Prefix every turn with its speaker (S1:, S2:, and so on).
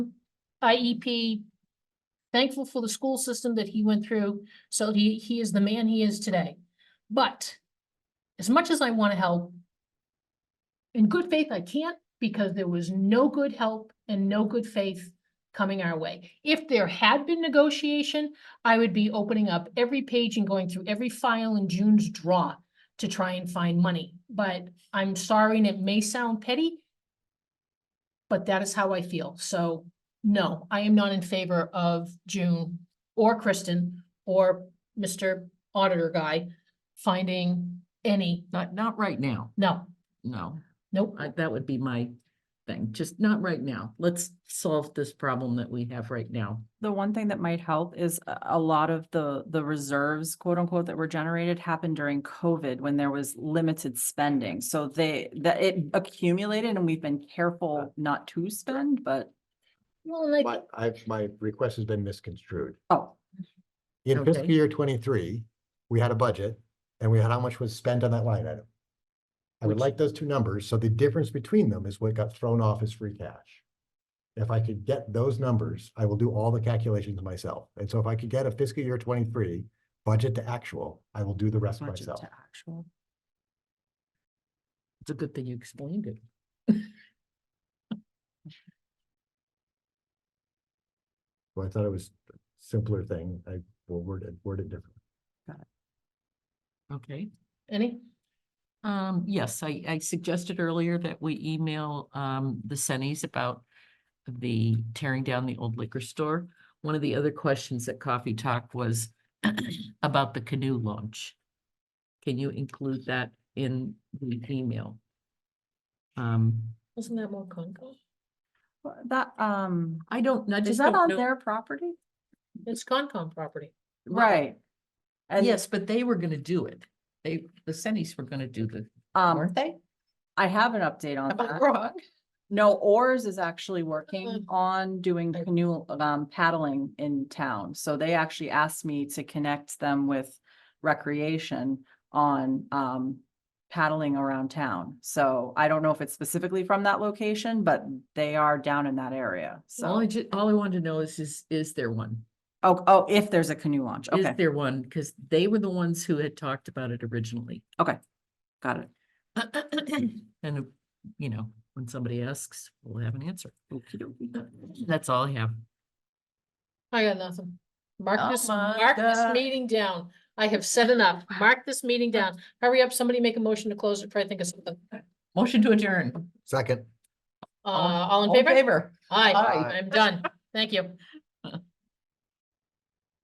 S1: IEP. E Thankful for the school system that he went through, so he, he is the man he is today. But as much as I want to help, in good faith, I can't because there was no good help and no good faith coming our way. If there had been negotiation, I would be opening up every page and going through every file in June's draw to try and find money. But I'm sorry, and it may sound petty, but that is how I feel. So no, I am not in favor of June or Kristen or Mr. Auditor Guy finding any,
S2: Not, not right now,
S1: no,
S2: no.
S1: nope.
S2: I- That would be my thing, just not right now. Let's solve this problem that we have right now.
S3: The one thing that might help is a, a lot of the, the reserves, quote unquote, that were generated happened during COVID when there was limited spending. So they, that it accumulated and we've been careful not to spend, but,
S1: Well, and I
S4: My, I've, my request has been misconstrued.
S3: oh,
S4: In fiscal
S2: Okay.
S4: year twenty-three, we had a budget and we had how much was spent on that line item. I would
S2: Which-
S4: like those two numbers, so the difference between them is what got thrown off as free cash. If I could get those numbers, I will do all the calculations myself. And so if I could get a fiscal year twenty-three budget to actual, I will do the rest
S3: budget
S4: myself.
S3: to actual.
S2: It's a good thing you explained it.
S4: Well, I thought it was a simpler thing. I will word it, word it differently.
S2: Okay.
S1: any,
S2: Um, yes, I, I suggested earlier that we email, um, the Sennies about the tearing down the old liquor store. One of the other questions at Coffee Talk was about the canoe launch. Can you include that in the email? Um,
S1: wasn't that more Concom?
S3: Well, That, um,
S2: I don't, I
S3: is
S2: just
S3: that
S2: don't
S3: on
S2: know.
S3: their property?
S1: It's Concom property.
S3: Right. And,
S2: Yes, but they were gonna do it. They, the Sennies were gonna do the,
S3: um,
S2: weren't they?
S3: I have an update on
S1: Am I
S3: that.
S1: wrong?
S3: No, Oars is actually
S1: Mhm.
S3: working on doing
S1: Okay.
S3: canoe, um, paddling in town. So they actually asked me to connect them with recreation on, um, paddling around town. So I don't know if it's specifically from that location, but they are down in that area.
S2: All I
S3: So,
S2: ju, all I wanted to know is, is, is there one?
S3: oh, oh, if there's a canoe launch.
S2: Is
S3: Okay,
S2: there one? Because they were the ones who had talked about it originally.
S3: got it.
S2: And, uh, you know, when somebody asks, we'll have an answer. That's all I have.
S1: I got nothing. Mark
S2: Oh
S1: this,
S2: my
S1: mark this
S2: God.
S1: meeting down. I have said enough. Mark this meeting down. Hurry up, somebody make a motion to close it before I think of something.
S2: Motion to adjourn.
S4: Second.
S1: Uh, all in favor? Aye,
S2: Aye.
S1: I'm done. Thank you.